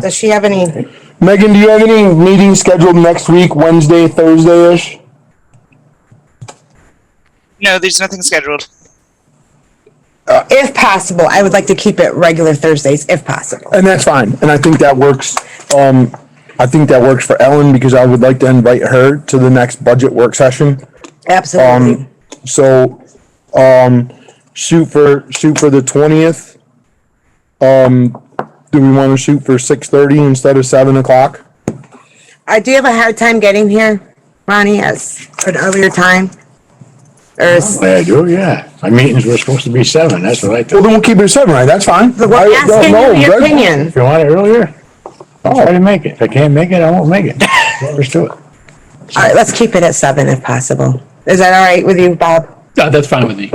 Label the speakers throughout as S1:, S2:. S1: Does she have any,
S2: Megan, do you have any meetings scheduled next week, Wednesday, Thursday-ish?
S3: No, there's nothing scheduled.
S1: if possible, I would like to keep it regular Thursdays if possible.
S2: And that's fine, and I think that works, um, I think that works for Ellen because I would like to invite her to the next budget work session.
S1: Absolutely.
S2: Um, so, um, shoot for, shoot for the twentieth. Um, do we wanna shoot for six thirty instead of seven o'clock?
S1: I do have a hard time getting here, Ronnie, as an earlier time. Or is-
S4: Yeah, I do, yeah. My meetings were supposed to be seven, that's what I
S2: Well,
S4: thought.
S2: then we'll keep it at seven, right? That's fine.
S1: But we're
S2: I- no,
S1: asking
S2: no,
S1: you your
S2: Greg-
S1: opinion.
S4: If you want it earlier, I'll try to make it. If I can't make it, I won't make it. Let's do it.
S1: All right, let's keep it at seven if possible. Is that all right with you, Bob?
S5: No, that's fine with me.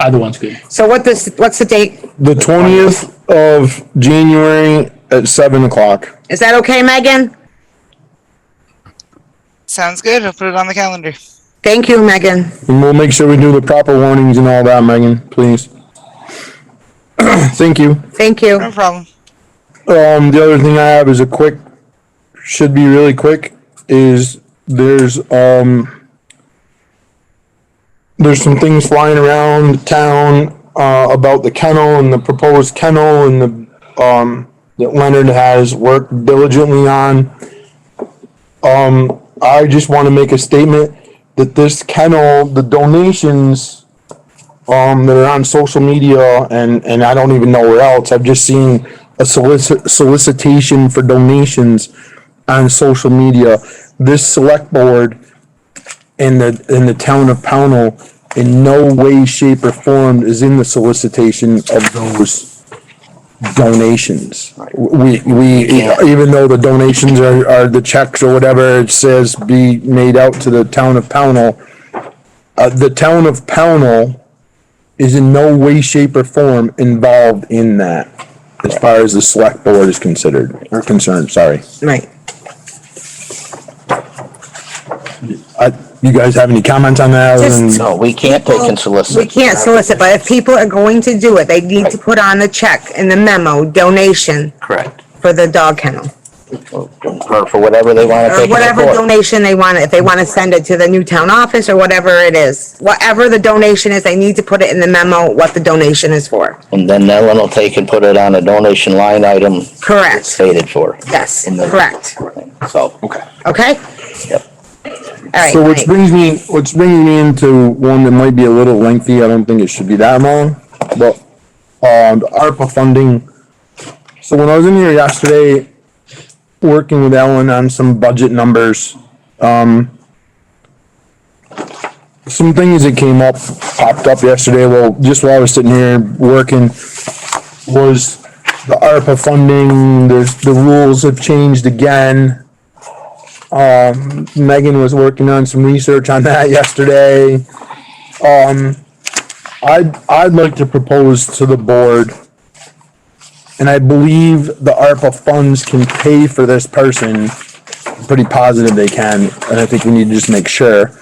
S5: Either one's good.
S1: So what this, what's the date?
S2: The twentieth of January at seven o'clock.
S1: Is that okay, Megan?
S3: Sounds good. I'll put it on the calendar.
S1: Thank you, Megan.
S2: And we'll make sure we do the proper warnings and all that, Megan, please. Thank you.
S1: Thank you.
S3: No problem.
S2: Um, the other thing I have is a quick, should be really quick, is there's, um, there's some things flying around town, uh, about the kennel and the proposed kennel and the, um, that Leonard has worked diligently on. Um, I just want to make a statement that this kennel, the donations, um, that are on social media and, and I don't even know where else. I've just seen a solicit, solicitation for donations on social media. This select board in the, in the town of Pownell in no way, shape or form is in the solicitation of those donations. We, we, even though the donations are, are the checks or whatever, it says be made out to the town of Pownell. Uh, the town of Pownell is in no way, shape or form involved in that. As far as the select board is considered, or concerned, sorry.
S1: Right.
S2: I, Uh, you guys have any comments on that? other than-
S1: Just-
S6: No, we can't take
S1: We
S6: and solicit.
S1: can't solicit, but if people are going to do it, they need to put on the check and the memo, donation
S6: Correct.
S1: for the dog kennel.
S6: Or for whatever they want to
S1: Or
S6: take. in their
S1: whatever
S6: court.
S1: donation they want, if they want to send it to the new town office or whatever it is. Whatever the donation is, they need to put it in the memo what the donation is for.
S6: And then Ellen will take and put it on a donation line item
S1: Correct.
S6: stated for.
S1: Yes,
S6: In the-
S1: correct.
S6: So. Okay.
S1: Okay?
S6: Yep.
S1: All
S2: So which
S1: right, great.
S2: brings me, which brings me into one that might be a little lengthy, I don't think it should be that long, but, um, the ARPA funding. So when I was in here yesterday, working with Ellen on some budget numbers, um, some things that came up, popped up yesterday, well, just while I was sitting here working, was the ARPA funding, there's, the rules have changed again. Megan was working on some research on that yesterday. Um, I'd, I'd like to propose to the board, and I believe the ARPA funds can pay for this person. I'm Pretty positive they can, and I think we need to just make sure.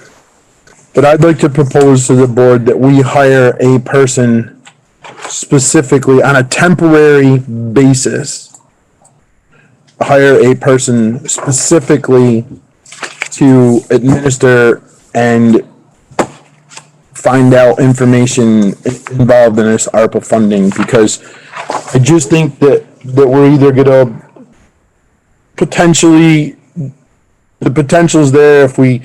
S2: But I'd like to propose to the board that we hire a person specifically on a temporary basis. Hire a person specifically to administer and find out information involved in this ARPA funding because I just think that, that we're either gonna potentially, the potential's there if we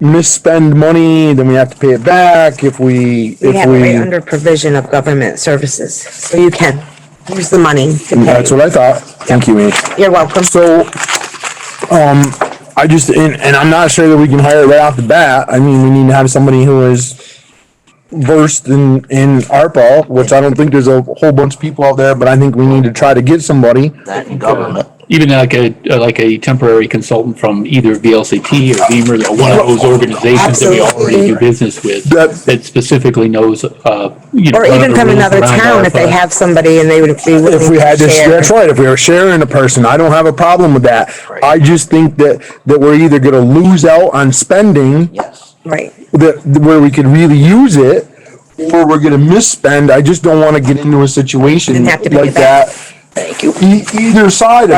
S2: misspend money, then we have to pay it back, if we,
S1: We
S2: if
S1: have it right
S2: we.
S1: under provision of government services, so you can use the money to pay.
S2: That's what I thought. Thank you, Amy.
S1: You're welcome.
S2: So, um, I just, and, and I'm not sure that we can hire right off the bat. I mean, we need to have somebody who is versed in, in ARPA, which I don't think there's a whole bunch of people out there, but I think we need to try to get somebody.
S6: That in government.
S5: Even like a, like a temporary consultant from either VLCT or Beamer, or one of those organizations that we already do business with
S2: That-
S5: that specifically knows, uh, you know.
S1: Or
S5: one of
S1: even
S5: the
S1: from
S5: rules
S1: another
S5: around
S1: town if they
S5: ARPA.
S1: have somebody and they would be willing
S2: If we had
S1: to
S2: this,
S1: share.
S2: that's right, if we were sharing a person, I don't have a problem with that. I just think that, that we're either gonna lose out on spending
S6: Yes.
S1: Right.
S2: that, where we could really use it, or we're gonna misspend, I just don't wanna get into a situation
S1: And have to pay
S2: like
S1: back.
S2: that. Thank you. E- either side of it.